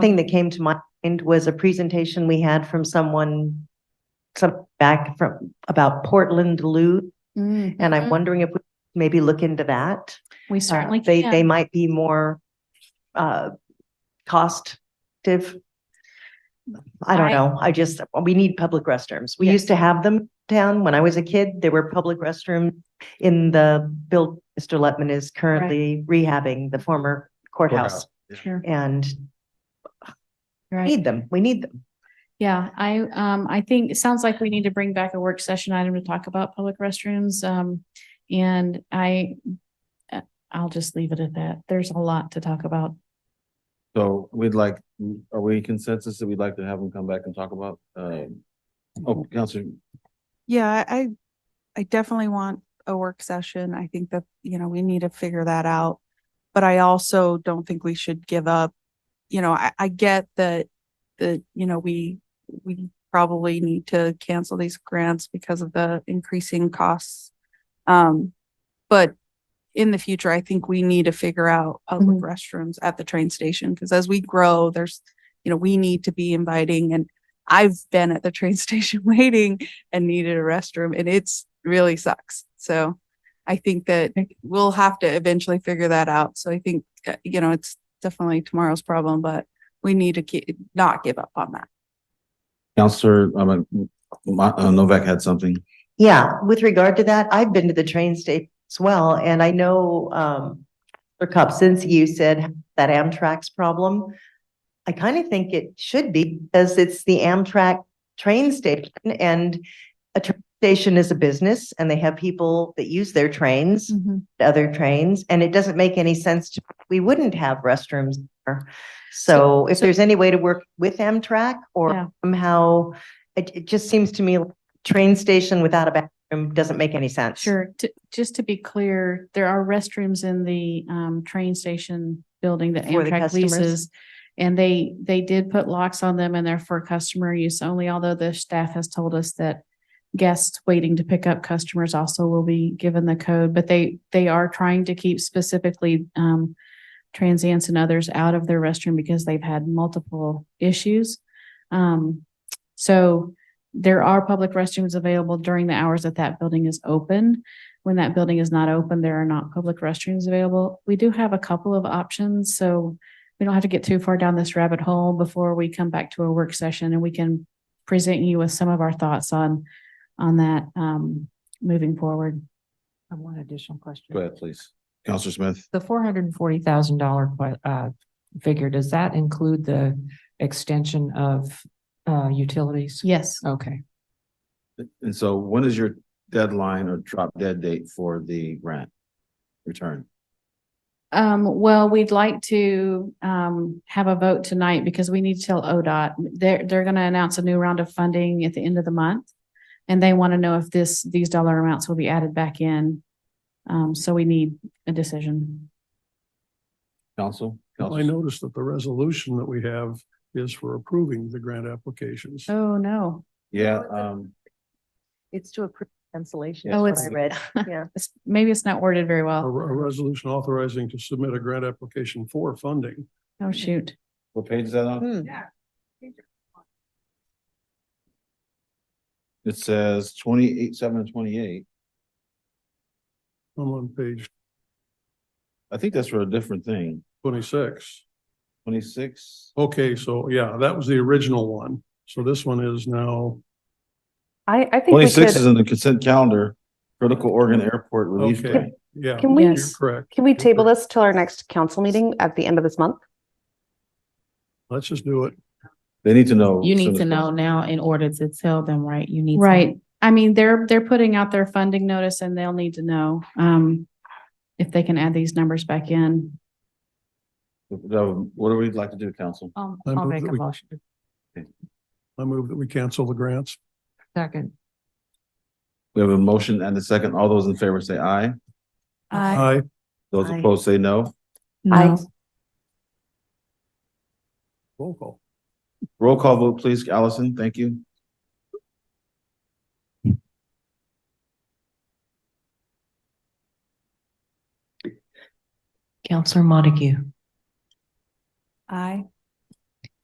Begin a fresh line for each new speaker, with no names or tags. thing that came to mind was a presentation we had from someone some back from about Portland Loop,
Mm,
and I'm
Mhm.
wondering if we maybe look into that.
We
Uh,
certainly
They, they
can.
might be more uh costive. I don't
I-
know. I just, we need public restrooms. We used to have them down when I was a kid. There were public restrooms in the build, Mr. Letman is currently rehabbing the former courthouse
Sure,
and
you're right.
need them. We need them.
Yeah, I, um, I think it sounds like we need to bring back a work session item to talk about public restrooms. Um, and I, uh, I'll just leave it at that. There's a lot to talk about.
So we'd like, are we consensus that we'd like to have them come back and talk about? Um, oh, Counselor,
Yeah, I, I definitely want a work session. I think that, you know, we need to figure that out. But I also don't think we should give up. You know, I, I get that, that, you know, we, we probably need to cancel these grants because of the increasing costs. Um, but in the future, I think we need to figure out public
Mhm.
restrooms at the train station. Cause as we grow, there's, you know, we need to be inviting and I've been at the train station waiting and needed a restroom and it's really sucks. So I think that we'll have to eventually figure that out. So I think, uh, you know, it's definitely tomorrow's problem, but we need to ki- not give up on that.
Counselor, I mean, Ma- uh, Novak had something.
Yeah, with regard to that, I've been to the train station as well, and I know, um, for Cup, since you said that Amtrak's problem, I kind of think it should be, because it's the Amtrak train station, and a train station is a business, and they have people that use their trains, other trains, and it doesn't make any sense to, we wouldn't have restrooms there. So if
so-
there's any way to work with Amtrak
Yeah.
or somehow, it, it just seems to me like train station without a bathroom doesn't make any sense.
Sure. To, just to be clear, there are restrooms in the, um, train station building that
For the
Amtrak
customers?
leases. And they, they did put locks on them and they're for customer use only, although the staff has told us that guests waiting to pick up customers also will be given the code, but they, they are trying to keep specifically, um, transients and others out of their restroom because they've had multiple issues. Um, so there are public restrooms available during the hours that that building is open. When that building is not open, there are not public restrooms available. We do have a couple of options, so we don't have to get too far down this rabbit hole before we come back to a work session and we can present you with some of our thoughts on, on that, um, moving forward.
I have one additional question.
Go ahead, please. Counselor Smith,
The four hundred and forty thousand dollar uh figure, does that include the extension of uh utilities?
Yes,
Okay,
and so when is your deadline or drop dead date for the grant return?
um, well, we'd like to, um, have a vote tonight because we need to tell ODOT. They're, they're gonna announce a new round of funding at the end of the month. And they want to know if this, these dollar amounts will be added back in. Um, so we need a decision.
Counsel?
Well, I noticed that the resolution that we have is for approving the grant applications.
Oh, no.
Yeah, um,
It's to approve cancellation.
Yes.
Oh,
is
it's-
what I read. Yeah.
It's- Maybe it's not worded very
A, a
well.
resolution authorizing to submit a grant application for funding.
Oh, shoot.
what page is that on?
Hmm.
It says twenty-eight, seven and twenty-eight.
I'm on page
I think that's for a different thing.
twenty-six.
Twenty-six?
Okay, so yeah, that was the original one. So this one is now,
I I think we
Twenty-six is
could,
in the consent calendar, critical Oregon Airport relief
Okay.
grant.
yeah.
Can we-
you're
Yes.
Correct.
Can we table this till our next council meeting at the end of this month?
Let's just do it.
They need to know.
You
as soon
need
as
to know
possible.
now in order to tell them, right? You need. to-
Right. I mean, they're, they're putting out their funding notice and they'll need to know, um, if they can add these numbers back in.
So, What do we like to do, council?
um,
I
I'll
move
make
that
a
we-
motion.
I move that we cancel the grants.
Second,
We have a motion and a second. All those in favor say aye.
Aye.
Those
Aye.
opposed say no.
I-
No.
roll call.
Roll call vote, please. Allison, thank you.
Counselor Montague,
Aye.